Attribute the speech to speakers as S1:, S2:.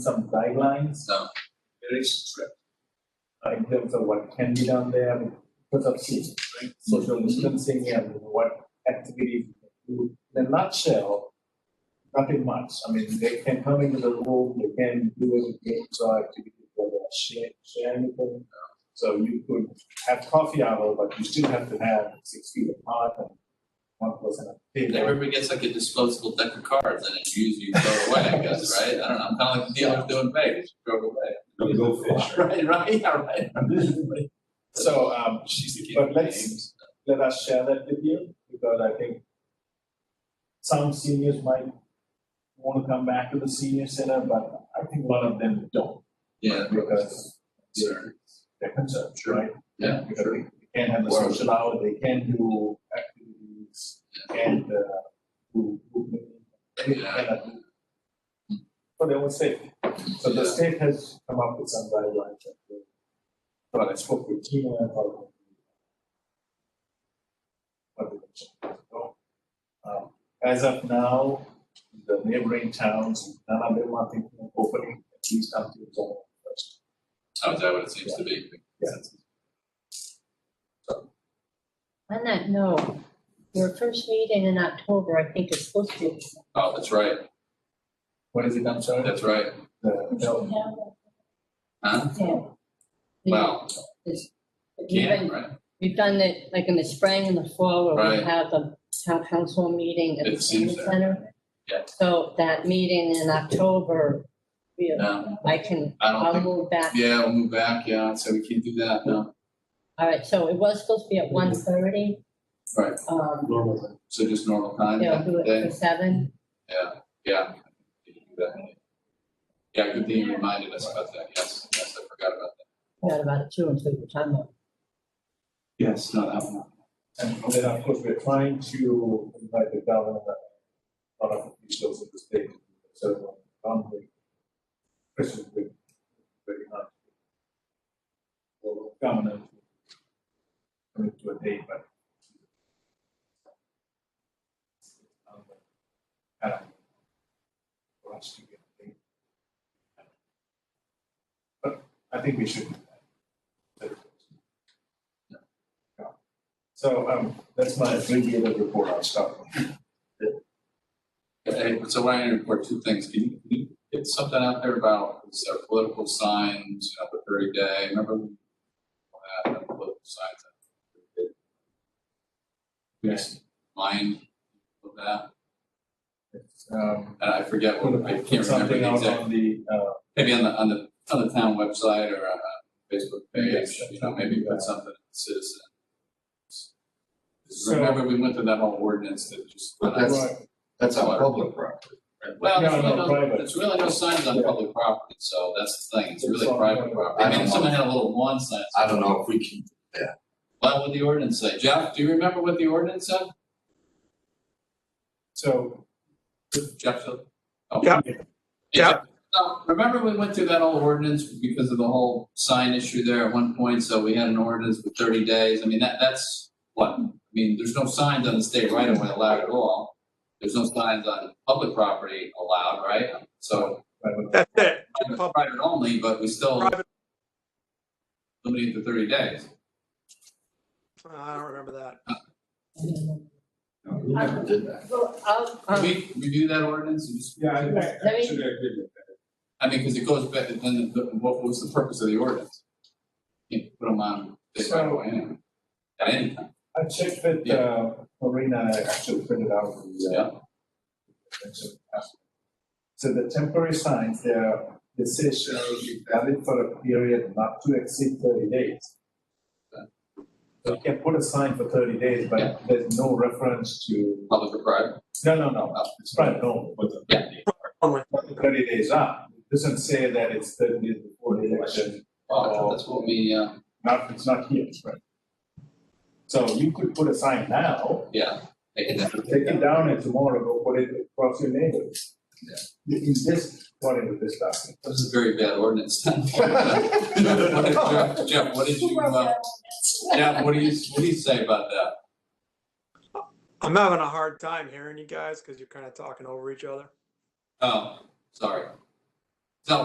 S1: some guidelines
S2: No, there is threat.
S1: uh, in terms of what can be done there because of safety, right? Social distancing and what activities. we can do. In a nutshell, nothing much. I mean, they can come into the room, they can do any games or activities, or share, share anything. So you could have coffee hour, but you still have to have six feet apart and one person at the
S2: If
S1: table.
S2: everybody gets like a disposable deck of cards and it's used, you throw away, I guess, right? I don't know, I'm kind of like the dealers doing Vegas, throw it away.
S3: Don't go fish.
S2: Right, right, yeah, right.
S1: So, um,
S2: She's the kid.
S1: But let's- let us share that with you, because I think some seniors might want to come back to the senior center, but I think one of them don't.
S2: Yeah.
S1: Because
S2: Sure.
S1: they're, they're concerned,
S2: Sure.
S1: right?
S2: Yeah,
S1: Because they can't have the
S2: Sure.
S1: social hour, they can do activities and, uh, who, who, they
S2: Yeah.
S1: cannot do. For their own safety. So the
S2: Yeah.
S1: state has come up with some guidelines. that they- But I spoke with Tina about. what they can do. Um, As of now, the neighboring towns, none of them are thinking of opening, at least until July first.
S2: Oh, is that what it seems to be?
S1: Yeah.
S4: On that note, your first meeting in October, I think is supposed to be.
S2: Oh, that's right,
S1: What is it, I'm sorry?
S2: that's right.
S1: The- no,
S2: Huh?
S4: Yeah.
S2: Wow,
S4: It's- You've
S2: yeah,
S4: been-
S2: right.
S4: you've done it like in the spring and the fall where
S2: Right.
S4: we have the town council meeting at
S2: It
S4: the
S2: seems
S4: senior
S2: that-
S4: center.
S2: yeah.
S4: So that meeting in October, we-
S2: No,
S4: I can,
S2: I don't
S4: I'll
S2: think,
S4: move back.
S2: yeah, we'll move back, yeah, so we can't do that, no.
S4: All right, so it was supposed to be at one thirty.
S2: Mm-hmm. Right,
S4: Um,
S2: so just normal time,
S4: they'll do it
S2: yeah,
S4: for seven.
S2: yeah. we can do that. Yeah, good thing you reminded us about that, yes, yes, I forgot about that.
S4: Not about two and three, we're talking about.
S2: Yes, no, that one.
S1: And then, of course, we're trying to invite the governor, a lot of officials of the state, so, um, the Christian, we, very much. Well, governor. Coming to a date, but. um, uh, For us to get. a date. But I think we should. do that. So, um, that's my abbreviated report, I'll stop.
S2: Hey, so when I report two things, can you, can you get something out there about uh, political signs, you know, the thirty day, remember? when we had the Political signs. Yes. Mind of that,
S1: Um,
S2: and I forget what, I
S1: put
S2: can't remember
S1: something
S2: the
S1: out
S2: exact,
S1: on the, uh,
S2: maybe on the, on the, on the town website or uh, Facebook page,
S1: Yes, that's
S2: you know,
S1: what we
S2: maybe
S1: do.
S2: put something to citizen.
S1: So-
S2: Remember, we went through that whole ordinance that just.
S3: But that's- That's on public property.
S2: Well,
S1: No,
S2: there's really
S1: no,
S2: no,
S1: private.
S2: there's really no signs on public property, so that's the thing, it's really
S1: It's on
S2: private
S1: private.
S2: property.
S3: I
S2: I mean,
S3: don't
S2: someone had a little lawn sign.
S3: I don't know if we can,
S2: What would the ordinance say? Jeff, do you remember what the ordinance said?
S1: so,
S2: Jeff? oh.
S5: Yeah. Yeah.
S2: So, Remember we went through that whole ordinance because of the whole sign issue there at one point, so we had an ordinance with thirty days, I mean, that, that's what? I mean, there's no signs on the state right of way allowed at all. There's no signs on public property allowed, right? So
S1: private-
S5: That's it.
S2: private private only, but we still
S5: Private-
S2: limited to thirty days.
S5: I don't remember that.
S3: no, we never did that.
S4: Well, I'll,
S2: Can
S4: um,
S2: we review that ordinance and just,
S1: yeah, I, I
S4: Let me-
S1: actually agree with that.
S2: I mean, because it goes back, then the- what was the purpose of the ordinance? You put them on, they right away anyway. At any time,
S1: I checked with, uh, Marina, I actually printed out the, uh,
S2: yeah,
S1: mentioned aspect. So the temporary signs, their decision be valid for a period not to exceed thirty days. So you can put a sign for thirty days,
S2: Yeah.
S1: but there's no reference to,
S2: public or private.
S1: no, no, no,
S2: uh,
S1: it's private, no, but
S2: Yeah.
S5: Only.
S1: what the thirty days are. It Doesn't say that it's thirty days before the election,
S2: Oh, I thought that's what we, uh,
S1: not, it's not here, right? So you could put a sign now,
S2: yeah. they can
S1: take it down and tomorrow go put it across your neighborhood.
S2: Yeah.
S1: Is this according to this document?
S2: That was a very bad ordinance. What did Jeff, Jeff, what did you, uh, Jeff, what do you, what do you say about that?
S5: I'm having a hard time hearing you guys because you're kind of talking over each other.
S2: Oh, sorry.